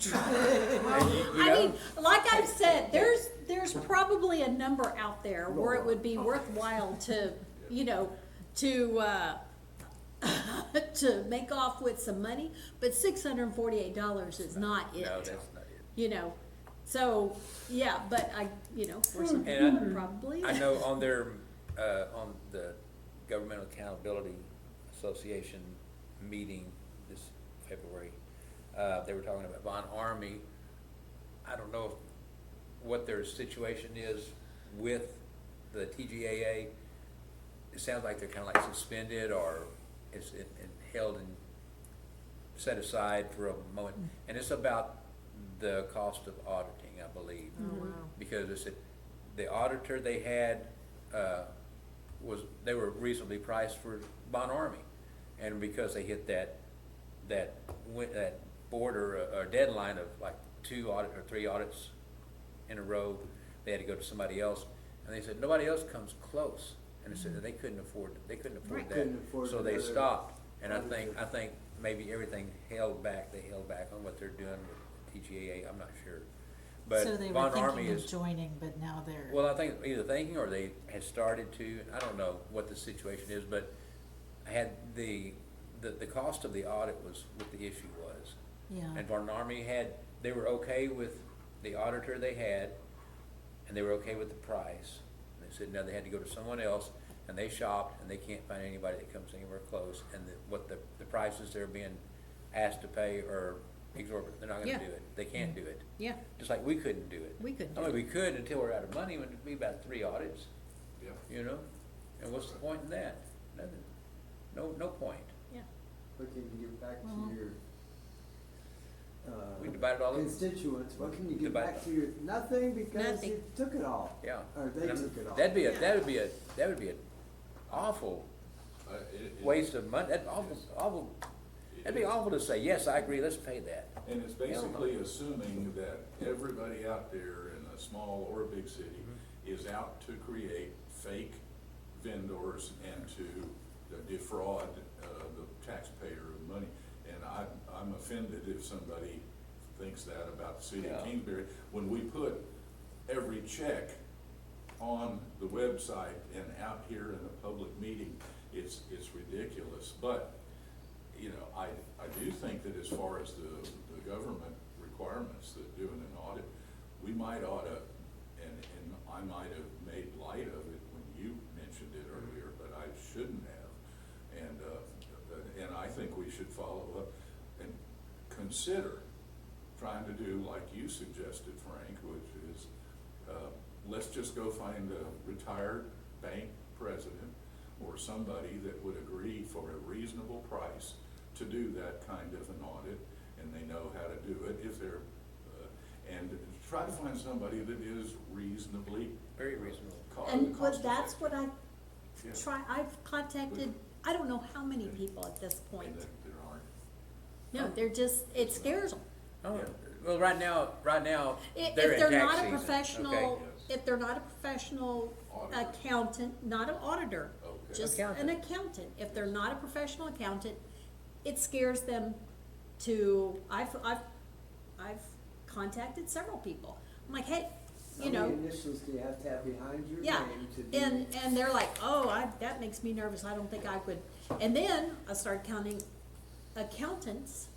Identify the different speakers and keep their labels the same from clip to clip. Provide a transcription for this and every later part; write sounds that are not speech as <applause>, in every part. Speaker 1: <laughs>
Speaker 2: try.
Speaker 3: And you- you
Speaker 1: I
Speaker 3: know-
Speaker 1: mean, like I've said, there's, there's probably a number out there where it would be worthwhile to, you know, to, uh, <laughs> to make off with some money, but six hundred and forty-eight dollars is not it.
Speaker 3: No, that's not it.
Speaker 1: You know, so, yeah, but I, you know, for some
Speaker 3: And I-
Speaker 1: people, probably.
Speaker 3: I know on their, uh, on the Governmental Accountability Association meeting this February, uh, they were talking about Von Army. I don't know if- what their situation is with the TGAA. It sounds like they're kinda like suspended or it's, it, it held and set aside for a moment. And it's about the cost of auditing, I believe. Because it's, the auditor they had, uh, was, they were reasonably priced for Bon Army. And because they hit that, that, win- that border uh, or deadline of like two audit or three audits in a row, they had to go to somebody else. And they said, nobody else comes close. And they said that they couldn't afford, they couldn't afford
Speaker 1: Right.
Speaker 3: that.
Speaker 4: Couldn't afford
Speaker 3: So they
Speaker 4: another
Speaker 3: stopped. And I
Speaker 4: auditor.
Speaker 3: think, I think maybe everything held back, they held back on what they're doing with TGAA, I'm not sure. But
Speaker 2: So they were
Speaker 3: Von Army
Speaker 2: thinking of
Speaker 3: is.
Speaker 2: joining, but now they're.
Speaker 3: Well, I think either thinking or they had started to, I don't know what the situation is, but I had the, the, the cost of the audit was what the issue was.
Speaker 2: Yeah.
Speaker 3: And Barton Army had, they were okay with the auditor they had, and they were okay with the price. And They said, no, they had to go to someone else, and they shopped, and they can't find anybody that comes anywhere close, and the, what the, the prices they're being asked to pay are exorbitant, they're not
Speaker 1: Yeah.
Speaker 3: gonna do it, they can't do it.
Speaker 1: Yeah,
Speaker 3: Just like we couldn't do it.
Speaker 1: we could
Speaker 3: I
Speaker 1: do
Speaker 3: mean,
Speaker 1: it.
Speaker 3: we could until we're out of money, when it'd be about three audits,
Speaker 4: Yeah.
Speaker 3: you know? And what's the point in that? Nothing, no, no point.
Speaker 4: What can you give back
Speaker 2: Well-
Speaker 4: to your
Speaker 3: We
Speaker 4: uh,
Speaker 3: divided all of,
Speaker 4: constituents? What can you give
Speaker 3: Divide
Speaker 4: back to your, nothing because
Speaker 1: Nothing.
Speaker 4: you took it all,
Speaker 3: yeah.
Speaker 4: or Uh, they
Speaker 3: And I'm-
Speaker 4: took it all.
Speaker 3: That'd be
Speaker 1: Yeah.
Speaker 3: a, that would be a, that would be an awful
Speaker 5: Uh, it- it-
Speaker 3: waste of money, that awful, awful,
Speaker 5: it-
Speaker 3: that'd be awful to say, yes, I agree, let's pay that.
Speaker 5: And it's basically assuming that everybody out there in a small or a big city
Speaker 3: Mm-hmm.
Speaker 5: is out to create fake vendors and to defraud uh, the taxpayer of money. And I, I'm offended if somebody thinks that about the city
Speaker 3: Yeah.
Speaker 5: of Kingsbury. When we put every check on the website and out here in a public meeting, it's, it's ridiculous. But you know, I, I do think that as far as the, the government requirements that doing an audit, we might oughta, and, and I might have made light of it when you mentioned it earlier, but I shouldn't have. And, uh, and I think we should follow up and consider trying to do like you suggested, Frank, which is, uh, let's just go find a retired bank president or somebody that would agree for a reasonable price to do that kind of an audit, and they know how to do it if they're, uh, and try to find somebody that is reasonably.
Speaker 3: Very reasonable.
Speaker 5: co-
Speaker 1: And
Speaker 5: cost
Speaker 1: but that's what I
Speaker 5: effective.
Speaker 1: try, I've contacted, I don't know how many people at this
Speaker 5: Yeah, and
Speaker 1: point.
Speaker 5: that there aren't.
Speaker 1: No, they're just, it scares them.
Speaker 3: Oh,
Speaker 5: Yeah.
Speaker 3: well, right now, right now,
Speaker 1: If
Speaker 3: they're
Speaker 1: if
Speaker 3: in
Speaker 1: they're
Speaker 3: tax
Speaker 1: not a
Speaker 3: season,
Speaker 1: professional,
Speaker 3: okay?
Speaker 5: yes.
Speaker 1: if they're not a professional
Speaker 5: Auditor.
Speaker 1: accountant, not an auditor,
Speaker 5: Okay.
Speaker 1: just an
Speaker 3: Accountant.
Speaker 1: accountant, if they're not a professional accountant, it scares them to, I've, I've, I've contacted several people. I'm like, hey, you
Speaker 4: How
Speaker 1: know,
Speaker 4: many initials do you have to have behind your
Speaker 1: yeah,
Speaker 4: name to be?
Speaker 1: and, and they're like, oh, I, that makes me nervous, I don't think I would. And then I started counting accountants,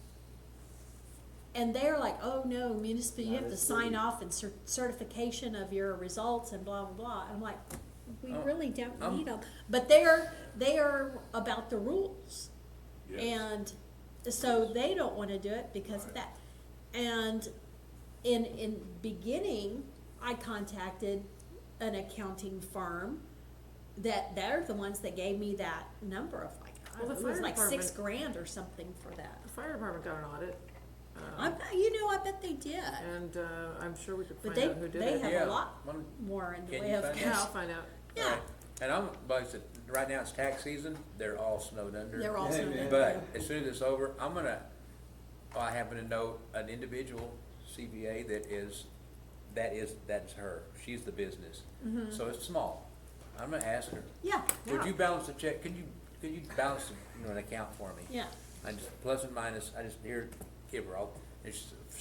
Speaker 1: and they're like, oh, no, municipal, you
Speaker 4: Not
Speaker 1: have
Speaker 4: a
Speaker 1: to sign
Speaker 4: city.
Speaker 1: off and cer- certification of your results and blah, blah, blah. I'm like, we
Speaker 3: Oh,
Speaker 1: really don't
Speaker 3: I'm-
Speaker 1: need them, but they're, they are about the rules.
Speaker 5: Yes.
Speaker 1: And so they don't wanna do it because of that. And in, in beginning, I contacted an accounting firm that, they're the ones that gave me that number of like, I
Speaker 6: Well, the
Speaker 1: don't know, it was
Speaker 6: fire
Speaker 1: like six
Speaker 6: department-
Speaker 1: grand or something for that.
Speaker 6: The fire department got an audit. uh,
Speaker 1: I, you know, I bet they did,
Speaker 6: And uh, I'm sure we could
Speaker 1: but
Speaker 6: find
Speaker 1: they,
Speaker 6: out who did
Speaker 1: they
Speaker 6: it.
Speaker 1: have
Speaker 3: Yeah.
Speaker 1: a lot
Speaker 3: Well,
Speaker 1: more in the
Speaker 3: can
Speaker 1: way
Speaker 3: you
Speaker 1: of
Speaker 3: find
Speaker 6: Yeah, I'll
Speaker 1: cash.
Speaker 6: find out.
Speaker 1: Yeah,
Speaker 3: And I'm, like I said, right now it's tax season, they're all snowed under.
Speaker 1: they're all
Speaker 4: Yeah,
Speaker 1: snowed
Speaker 4: man.
Speaker 1: under.
Speaker 3: But as soon as it's over, I'm gonna, I happen to know an individual CPA that is, that is, that's her, she's the business. So it's small. I'm gonna ask her,
Speaker 1: Yeah,
Speaker 3: would
Speaker 6: Yeah.
Speaker 3: you balance the check, could you, could you balance, you know, an account for me?
Speaker 1: yeah,
Speaker 3: I just, plus and minus, I just, here, give her all, and she said,